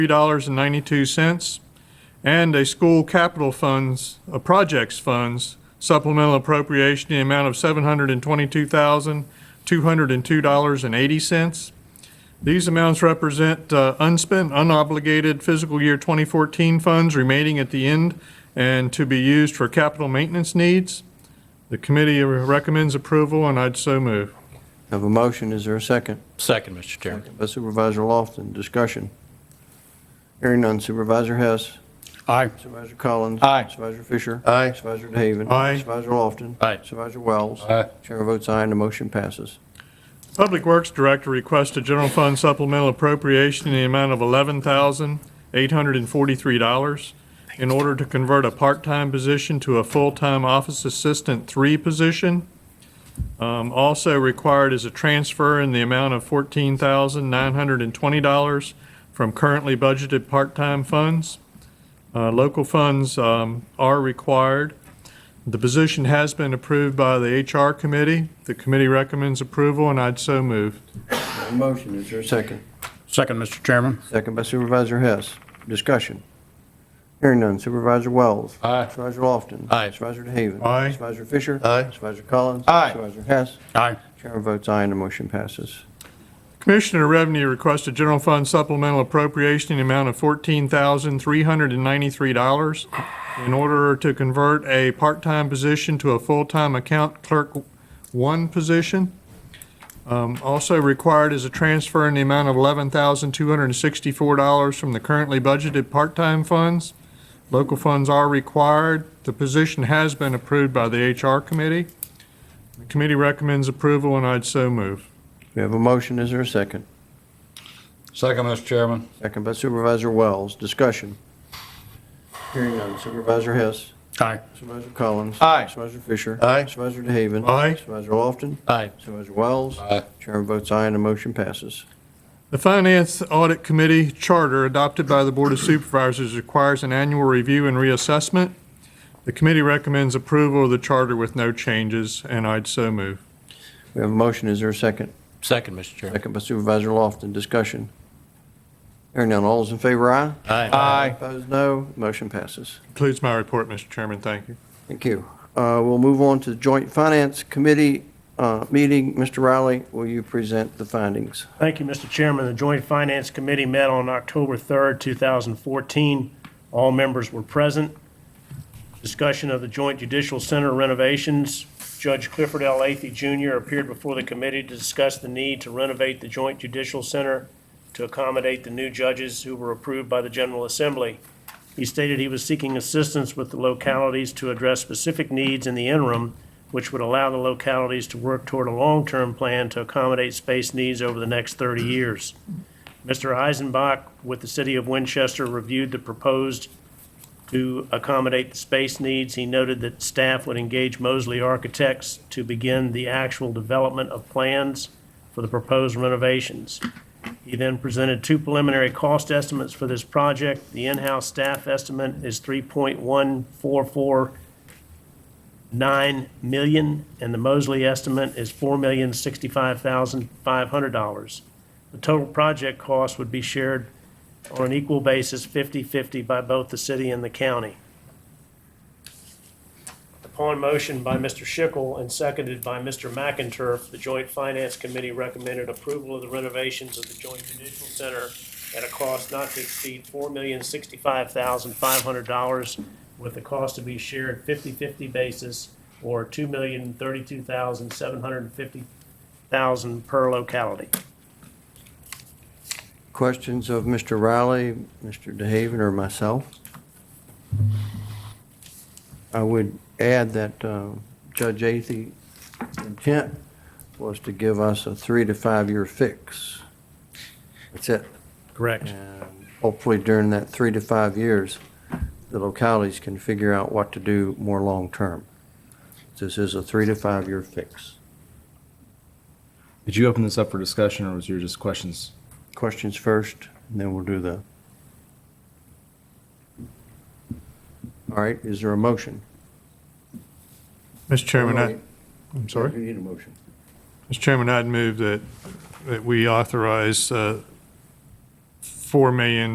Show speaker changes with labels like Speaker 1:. Speaker 1: $3.92, and a school capital funds, uh, projects funds supplemental appropriation in the amount of $722,202.80. These amounts represent uh, unspent, unobligated fiscal year 2014 funds remaining at the end and to be used for capital maintenance needs. The committee recommends approval, and I'd so move.
Speaker 2: Have a motion, is there a second?
Speaker 3: Second, Mr. Chairman.
Speaker 2: By Supervisor Lofton, discussion. Hearing none, Supervisor Hess.
Speaker 3: Aye.
Speaker 2: Supervisor Collins.
Speaker 3: Aye.
Speaker 2: Supervisor Fisher.
Speaker 4: Aye.
Speaker 2: Supervisor DeHaven.
Speaker 1: Aye.
Speaker 2: Supervisor Lofton.
Speaker 3: Aye.
Speaker 2: Supervisor Wells.
Speaker 3: Aye.
Speaker 2: Chair votes aye, and the motion passes.
Speaker 1: Public Works Director requests a general fund supplemental appropriation in the amount of $11,843 in order to convert a part-time position to a full-time office assistant three position. Um, Also required is a transfer in the amount of $14,920 from currently budgeted part-time funds. Uh, Local funds um, are required. The position has been approved by the HR committee. The committee recommends approval, and I'd so move.
Speaker 2: Have a motion, is there a second?
Speaker 3: Second, Mr. Chairman.
Speaker 2: Second by Supervisor Hess, discussion. Hearing none, Supervisor Wells.
Speaker 3: Aye.
Speaker 2: Supervisor Lofton.
Speaker 3: Aye.
Speaker 2: Supervisor DeHaven.
Speaker 1: Aye.
Speaker 2: Supervisor Fisher.
Speaker 4: Aye.
Speaker 2: Supervisor Collins.
Speaker 3: Aye.
Speaker 2: Supervisor Hess.
Speaker 3: Aye.
Speaker 2: Chair votes aye, and the motion passes.
Speaker 1: Commissioner Revenue requested general fund supplemental appropriation in the amount of $14,393 in order to convert a part-time position to a full-time account clerk one position. Um, Also required is a transfer in the amount of $11,264 from the currently budgeted part-time funds. Local funds are required. The position has been approved by the HR committee. The committee recommends approval, and I'd so move.
Speaker 2: We have a motion, is there a second?
Speaker 3: Second, Mr. Chairman.
Speaker 2: Second by Supervisor Wells. Discussion. Hearing none. Supervisor Hess.
Speaker 3: Aye.
Speaker 2: Supervisor Collins.
Speaker 3: Aye.
Speaker 2: Supervisor Fisher.
Speaker 4: Aye.
Speaker 2: Supervisor DeHaven.
Speaker 1: Aye.
Speaker 2: Supervisor Lofton.
Speaker 3: Aye.
Speaker 2: Supervisor Wells.
Speaker 3: Aye.
Speaker 2: Chairman votes aye and the motion passes.
Speaker 1: The Finance Audit Committee Charter adopted by the Board of Supervisors requires an annual review and reassessment. The committee recommends approval of the charter with no changes, and I'd so move.
Speaker 2: We have a motion. Is there a second?
Speaker 3: Second, Mr. Chairman.
Speaker 2: Second by Supervisor Lofton. Discussion. Hearing none. All those in favor, aye.
Speaker 3: Aye.
Speaker 2: Opposed, no. Motion passes.
Speaker 1: Concludes my report, Mr. Chairman. Thank you.
Speaker 2: Thank you. Uh, We'll move on to the Joint Finance Committee uh, meeting. Mr. Riley, will you present the findings?
Speaker 5: Thank you, Mr. Chairman. The Joint Finance Committee met on October 3rd, 2014. All members were present. Discussion of the Joint Judicial Center renovations. Judge Clifford L. Athey Jr. appeared before the committee to discuss the need to renovate the Joint Judicial Center to accommodate the new judges who were approved by the General Assembly. He stated he was seeking assistance with the localities to address specific needs in the interim, which would allow the localities to work toward a long-term plan to accommodate space needs over the next 30 years. Mr. Eisenbach with the City of Winchester reviewed the proposed to accommodate the space needs. He noted that staff would engage Mosley Architects to begin the actual development of plans for the proposed renovations. He then presented two preliminary cost estimates for this project. The in-house staff estimate is 3.1449 million, and the Mosley estimate is $4,065,500. The total project cost would be shared on an equal basis, 50/50 by both the city and the county. Upon motion by Mr. Schickel and seconded by Mr. McInturf, the Joint Finance Committee recommended approval of the renovations of the Joint Judicial Center at a cost not to exceed four million sixty-five thousand five hundred dollars, with the cost to be shared 50/50 basis, or two million thirty-two thousand seven hundred and fifty thousand per locality.
Speaker 2: Questions of Mr. Riley, Mr. DeHaven, or myself? I would add that uh, Judge Athey's intent was to give us a three to five-year fix. That's it.
Speaker 5: Correct.
Speaker 2: And hopefully during that three to five years, the localities can figure out what to do more long-term. This is a three to five-year fix.
Speaker 4: Did you open this up for discussion or was your just questions?
Speaker 2: Questions first, and then we'll do the. All right, is there a motion?
Speaker 1: Mr. Chairman, I,
Speaker 2: Wait,
Speaker 1: I'm sorry.
Speaker 2: You need a motion.
Speaker 1: Mr. Chairman, I'd move that, that we authorize uh, $4 million